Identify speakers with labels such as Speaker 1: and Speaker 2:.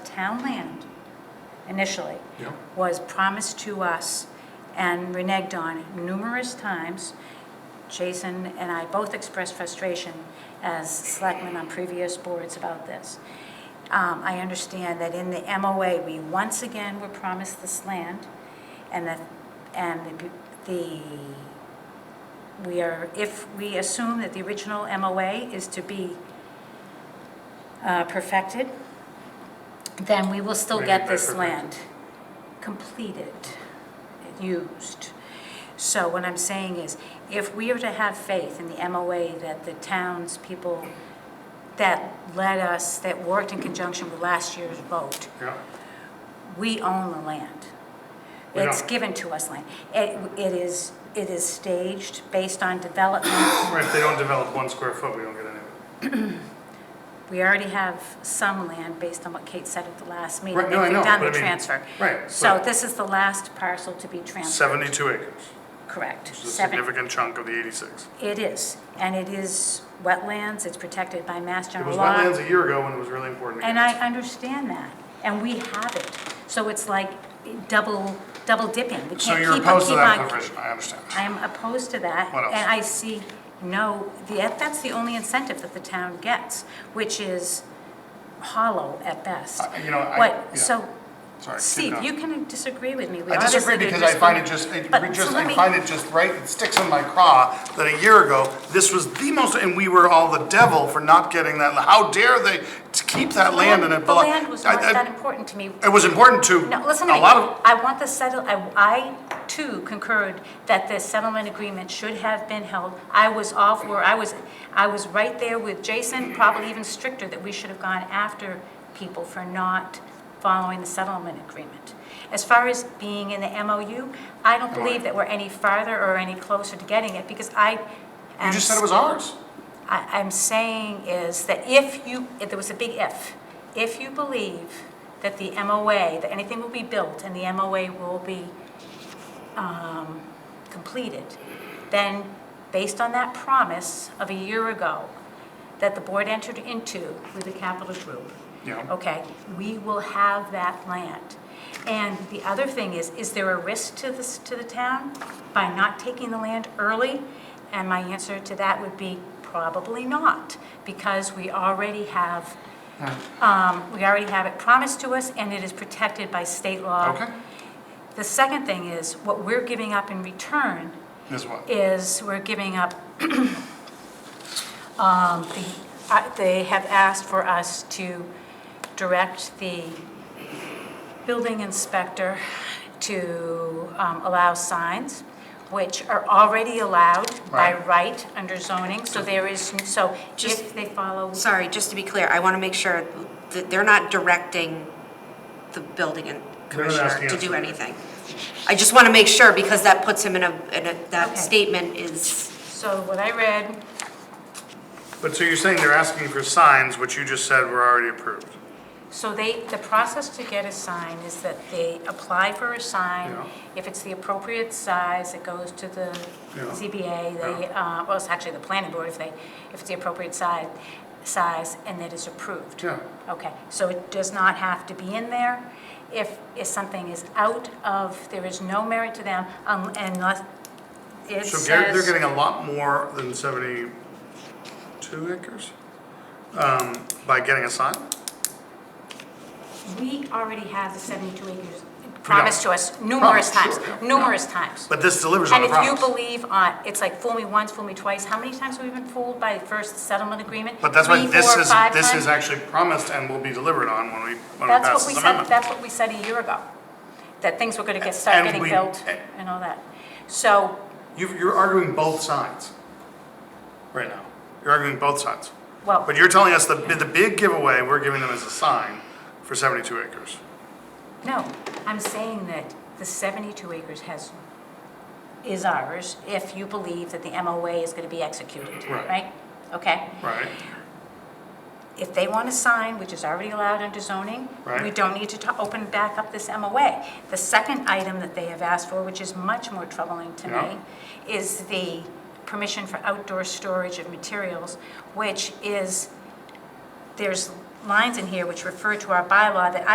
Speaker 1: town land initially,
Speaker 2: Yep.
Speaker 1: was promised to us and reneged on numerous times. Jason and I both expressed frustration as selectmen on previous boards about this. Um, I understand that in the MOA, we once again were promised this land, and that, and the, the we are, if we assume that the original MOA is to be uh, perfected, then we will still
Speaker 2: What do you mean
Speaker 1: get
Speaker 2: by
Speaker 1: this
Speaker 2: perfected?
Speaker 1: land completed, used. So what I'm saying is, if we are to have faith in the MOA that the townspeople that led us, that worked in conjunction with last year's vote,
Speaker 2: Yeah,
Speaker 1: we own the land.
Speaker 2: We
Speaker 1: It's
Speaker 2: don't.
Speaker 1: given to us land. It, it is, it is staged based on development.
Speaker 2: Right, if they don't develop one square foot, we don't get any of it.
Speaker 1: We already have some land based on what Kate said at the last meeting.
Speaker 2: Right, no, I
Speaker 1: that
Speaker 2: know,
Speaker 1: We've done
Speaker 2: but
Speaker 1: the
Speaker 2: I mean-
Speaker 1: transfer.
Speaker 2: right,
Speaker 1: So
Speaker 2: but-
Speaker 1: this is the last parcel to be transferred.
Speaker 2: Seventy-two acres,
Speaker 1: Correct.
Speaker 2: which is a
Speaker 1: Seven-
Speaker 2: significant chunk of the eighty-six.
Speaker 1: It is, and it is wetlands, it's protected by Mass
Speaker 2: It
Speaker 1: General
Speaker 2: was
Speaker 1: law.
Speaker 2: wetlands a year ago when it was really important. to
Speaker 1: And
Speaker 2: get
Speaker 1: I
Speaker 2: it.
Speaker 1: understand that, and we have it. So it's like double, double dipping. We
Speaker 2: So
Speaker 1: can't
Speaker 2: you're
Speaker 1: keep-
Speaker 2: opposed to
Speaker 1: keep
Speaker 2: that
Speaker 1: on-
Speaker 2: provision, I understand.
Speaker 1: I am opposed to that.
Speaker 2: What else?
Speaker 1: And I see no, the- that's the only incentive that the town gets, which is hollow at best.
Speaker 2: I- Uh, you know, I-
Speaker 1: What,
Speaker 2: yeah.
Speaker 1: so,
Speaker 2: Sorry, keep
Speaker 1: Steve,
Speaker 2: going.
Speaker 1: you can disagree with me. We
Speaker 2: I disagree
Speaker 1: obviously did
Speaker 2: because I find it
Speaker 1: disagree.
Speaker 2: just, I
Speaker 1: But-
Speaker 2: re-
Speaker 1: so
Speaker 2: just,
Speaker 1: let
Speaker 2: I
Speaker 1: me-
Speaker 2: find it just right, it sticks in my craw that a year ago, this was the most, and we were all the devil for not getting that. How dare they to keep that land and it
Speaker 1: The
Speaker 2: belong?
Speaker 1: land was
Speaker 2: I-
Speaker 1: not
Speaker 2: I-
Speaker 1: that important to me.
Speaker 2: It was important to
Speaker 1: No, listen to
Speaker 2: a
Speaker 1: me.
Speaker 2: lot of,
Speaker 1: I want the settle, I, I too concurred that the settlement agreement should have been held. I was all for, I was, I was right there with Jason, probably even stricter, that we should have gone after people for not following the settlement agreement. As far as being in the MOU, I don't believe that we're any farther or any closer to getting it, because I am
Speaker 2: you just said it was ours.
Speaker 1: I- I'm saying is that if you, if there was a big if, if you believe that the MOA, that anything will be built and the MOA will be um, completed, then based on that promise of a year ago that the board entered into with the capital group,
Speaker 2: Yeah.
Speaker 1: okay, we will have that land. And the other thing is, is there a risk to this, to the town by not taking the land early? And my answer to that would be probably not, because we already have, um, we already have it promised to us, and it is protected by state law.
Speaker 2: Okay,
Speaker 1: The second thing is, what we're giving up in return
Speaker 2: is what?
Speaker 1: is we're giving up, um, the- I- they have asked for us to direct the building inspector to um, allow signs, which are already allowed by
Speaker 2: Right.
Speaker 1: right under zoning, so there is, so if they follow,
Speaker 3: Sorry, just to be clear, I want to make sure that they're not directing the building and
Speaker 2: They're not asking
Speaker 3: commissioner to
Speaker 2: us
Speaker 3: do
Speaker 2: to.
Speaker 3: anything. I just want to make sure because that puts him in a, in a,
Speaker 1: Okay.
Speaker 3: that statement is,
Speaker 1: so what I read,
Speaker 2: But so you're saying they're asking for signs, which you just said were already approved?
Speaker 1: So they, the process to get a sign is that they apply for a sign.
Speaker 2: Yeah.
Speaker 1: If it's the appropriate size, it goes to the
Speaker 2: Yeah.
Speaker 1: ZBA, they, uh, well, it's actually the planning board if they, if it's the appropriate size, size, and it is approved.
Speaker 2: Yeah.
Speaker 1: Okay, so it does not have to be in there. If, if something is out of, there is no merit to them um, unless it
Speaker 2: So
Speaker 1: says.
Speaker 2: Gary, they're getting a lot more than seventy-two acres, um, by getting a sign?
Speaker 1: We already have the 72 acres promised to us numerous
Speaker 2: Promised,
Speaker 1: times,
Speaker 2: sure, yeah, yeah.
Speaker 1: numerous times.
Speaker 2: But this delivers on
Speaker 1: And
Speaker 2: the
Speaker 1: if you
Speaker 2: promise.
Speaker 1: believe on, it's like fool me once, fool me twice, how many times have we been fooled by the first settlement agreement?
Speaker 2: But that's why
Speaker 1: Three,
Speaker 2: this
Speaker 1: four,
Speaker 2: is,
Speaker 1: five
Speaker 2: this
Speaker 1: times?
Speaker 2: is actually promised and will be delivered on when we, when we
Speaker 1: That's
Speaker 2: pass
Speaker 1: what we
Speaker 2: this
Speaker 1: said,
Speaker 2: amendment.
Speaker 1: that's what we said a year ago, that things were gonna get, start
Speaker 2: And
Speaker 1: getting
Speaker 2: we-
Speaker 1: built and all that. So,
Speaker 2: You, you're arguing both sides right now. You're arguing both sides.
Speaker 1: well,
Speaker 2: But you're telling us the, the big giveaway we're giving them is a sign for seventy-two acres.
Speaker 1: no, I'm saying that the 72 acres has, is ours if you believe that the MOA is gonna be executed,
Speaker 2: Right.
Speaker 1: right? Okay?
Speaker 2: Right.
Speaker 1: If they want to sign, which is already allowed under zoning, we
Speaker 2: Right.
Speaker 1: don't need to ta- open back up this MOA. The second item that they have asked for, which is much more troubling to
Speaker 2: Yeah.
Speaker 1: me, is the permission for outdoor storage of materials, which is, there's lines in here which refer to our bylaw that